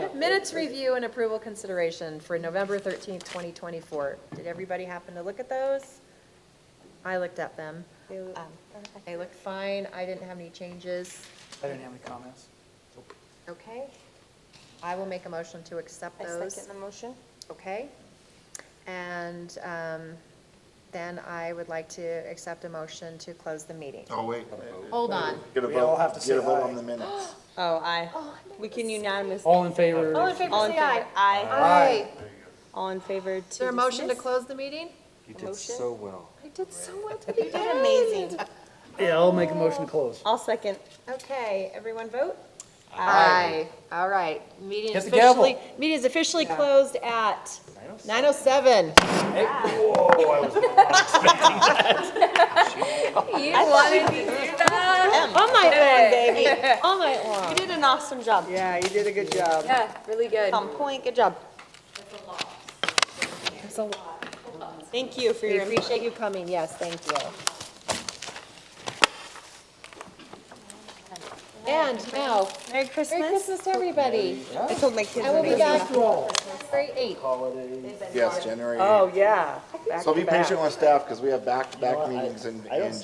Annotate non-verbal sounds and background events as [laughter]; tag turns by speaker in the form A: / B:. A: Minutes review and approval consideration for November 13th, 2024. Did everybody happen to look at those? I looked at them. Um, They looked fine. I didn't have any changes.
B: I didn't have any comments.
A: Okay. I will make a motion to accept
C: I
A: those.
C: second the motion.
A: Okay. And um, then I would like to accept a motion to close the meeting.
D: Oh, wait.
A: Hold on.
D: Get a
B: We all
D: vote,
B: have to
D: get a
B: say
D: vote
B: aye.
D: on the minutes.
E: Oh, aye. We can unanimously.
B: All in favor?
C: All in favor,
E: All in
C: say aye.
E: favor.
A: Aye.
E: Aye. All in favor to
A: Is there a motion to
E: dismiss?
A: close the meeting?
F: You
C: did Motion? so
F: well.
A: I did so well
C: You did amazing.
B: Yeah, I'll make a motion to close.
E: I'll second.
A: Okay, everyone vote?
E: Aye.
A: All right, meeting
B: Hit
A: is
B: the gavel.
A: officially, meeting is officially closed at 9:07.
E: You wanted to do that? Oh, All night long, [laughs] baby. All night long. You did an awesome job.
B: Yeah, you did a good job.
C: Yeah, really good.
E: On point, good job. It's a lot. Thank you for
A: We
E: your input.
A: appreciate you coming, yes, thank you. And now,
E: Merry
A: Merry
E: Christmas.
A: Christmas to everybody.
E: I told my kids.
A: I will
E: that
A: be
E: it was
A: back
E: enough.
A: January 8th.
D: Yes, January
B: Oh,
D: 8th.
B: yeah.
D: So be
B: Back-to-back.
D: patient with staff, because we have back-to-back meetings in,
B: I don't
D: in